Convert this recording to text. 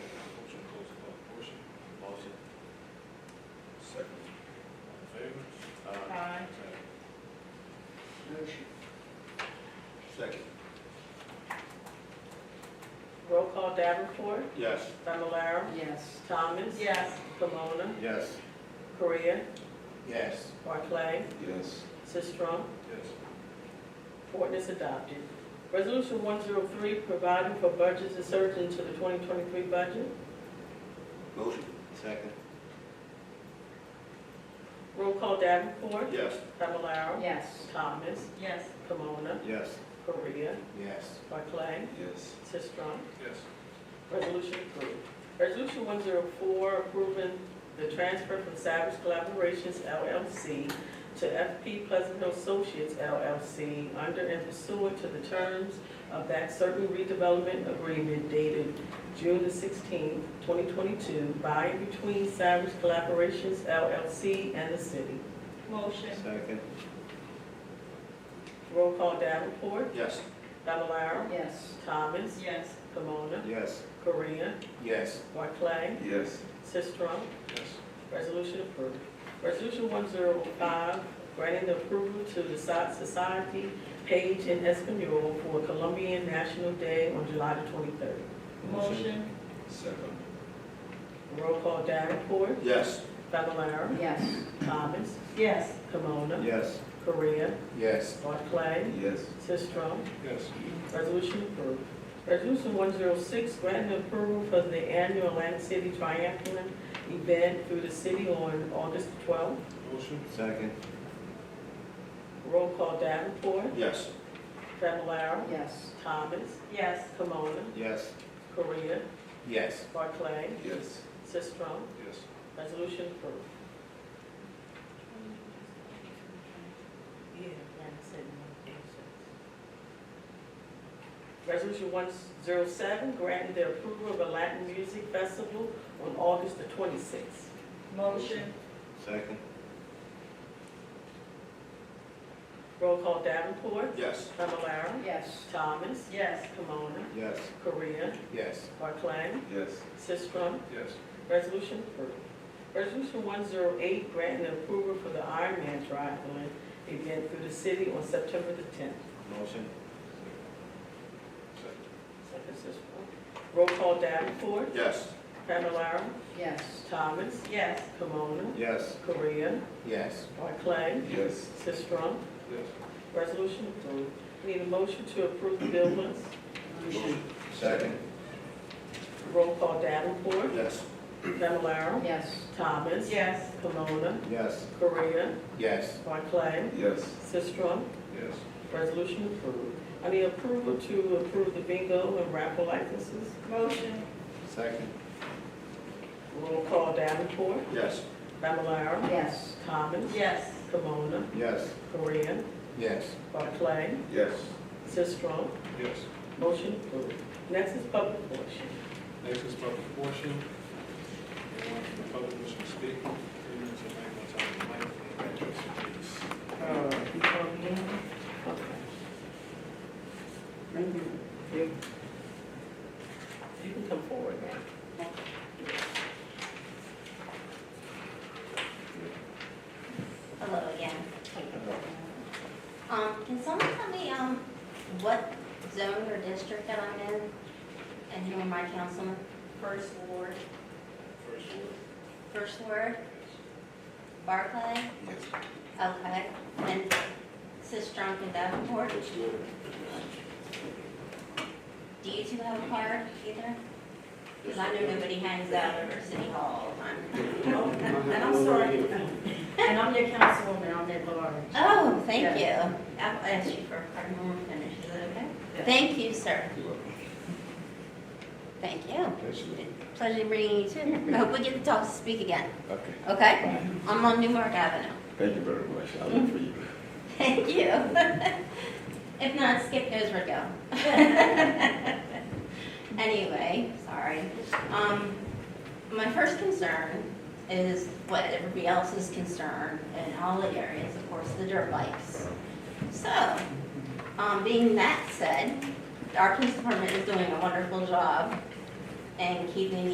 resolution. Second. Roll call Davenport, Yes. Fablelaro, Yes. Thomas. Yes. Pomona, Yes. Korea, Yes. Barclay, Yes. Sistrum. Yes. Ordinance adopted. Resolution one zero three, providing for budgets inserted into the twenty twenty-three budget. Motion. Second. Roll call Davenport, Yes. Fablelaro, Yes. Thomas, Yes. Pomona, Yes. Korea, Yes. Barclay, Yes. Sistrum. Yes. Resolution approved. Resolution one zero four, approving the transfer from Savage Collaborations LLC to FP Pleasant Hill Associates LLC under and pursuant to the terms of that certain redevelopment agreement dated June the sixteenth, twenty twenty-two, by and between Savage Collaborations LLC and the city. Motion. Second. Roll call Davenport, Yes. Fablelaro, Yes. Thomas, Yes. Pomona, Yes. Korea, Yes. Barclay, Yes. Sistrum, Yes. Resolution approved. Resolution one zero five, granting the approval to the Soc- Society Page in Espanol for Colombian National Day on July the twenty-third. Motion. Second. Roll call Davenport, Yes. Fablelaro, Yes. Thomas, Yes. Kimona, Yes. Korea, Yes. Barclay, Yes. Sistrum. Yes. Resolution approved. Resolution one zero six, granting approval for the annual Atlantic City Triathlon event through the city on August twelfth. Motion. Second. Roll call Davenport, Yes. Fablelaro, Yes. Thomas, Yes. Kimona, Yes. Korea, Yes. Barclay, Yes. Sistrum, Yes. resolution approved. Yeah, Brandon said no answers. Resolution one zero seven, granting the approval of a Latin music festival on August the twenty-sixth. Motion. Second. Roll call Davenport, Yes. Fablelaro, Yes. Thomas, Yes. Kimona, Yes. Korea, Yes. Barclay, Yes. Sistrum, Yes. Resolution approved. Resolution one zero eight, granting approval for the Ironman triathlon event through the city on September the tenth. Motion. Second, Sisram. Roll call Davenport, Yes. Fablelaro, Yes. Thomas, Yes. Kimona, Yes. Korea, Yes. Barclay, Yes. Sistrum. Yes. Resolution approved. Need a motion to approve the bill list. Motion. Second. Roll call Davenport, Yes. Fablelaro, Yes. Thomas, Yes. Kimona, Yes. Korea, Yes. Barclay, Yes. Sistrum. Yes. Resolution approved. I need approval to approve the bingo and raffle licenses. Motion. Second. Roll call Davenport, Yes. Fablelaro, Yes. Thomas, Yes. Kimona, Yes. Korea, Yes. Barclay, Yes. Sistrum. Yes. Motion approved. Next is public portion. Next is public portion. Anyone from the public wishing to speak? Three minutes of my time, Mike, and address, please. Okay. You can come forward now. Hello again. Um, can someone tell me, um, what zone or district that I'm in? And who am I councilman? First ward. First word. First ward, Barclay? Yes. Okay. And Sis Drunk and Davenport? First word. Do you two have a card either? Because I know nobody hangs out over City Hall all the time. And Oh, I'm sorry. And I'm your councilwoman, I'm at large. Oh, thank you. I'll ask you for a card when we're finished, is that okay? Yeah. Thank you, sir. Thank you. Pleasure meeting you too. I hope we get to talk to speak again, Okay, okay? fine. I'm on Newmark Avenue. Thank you very much. I look for you. Thank you. If not, Skip knows where to go. Anyway, sorry. Um, my first concern is what everybody else is concerned in all the areas, of course, the dirt bikes. So, um, being that said, our police department is doing a wonderful job in keeping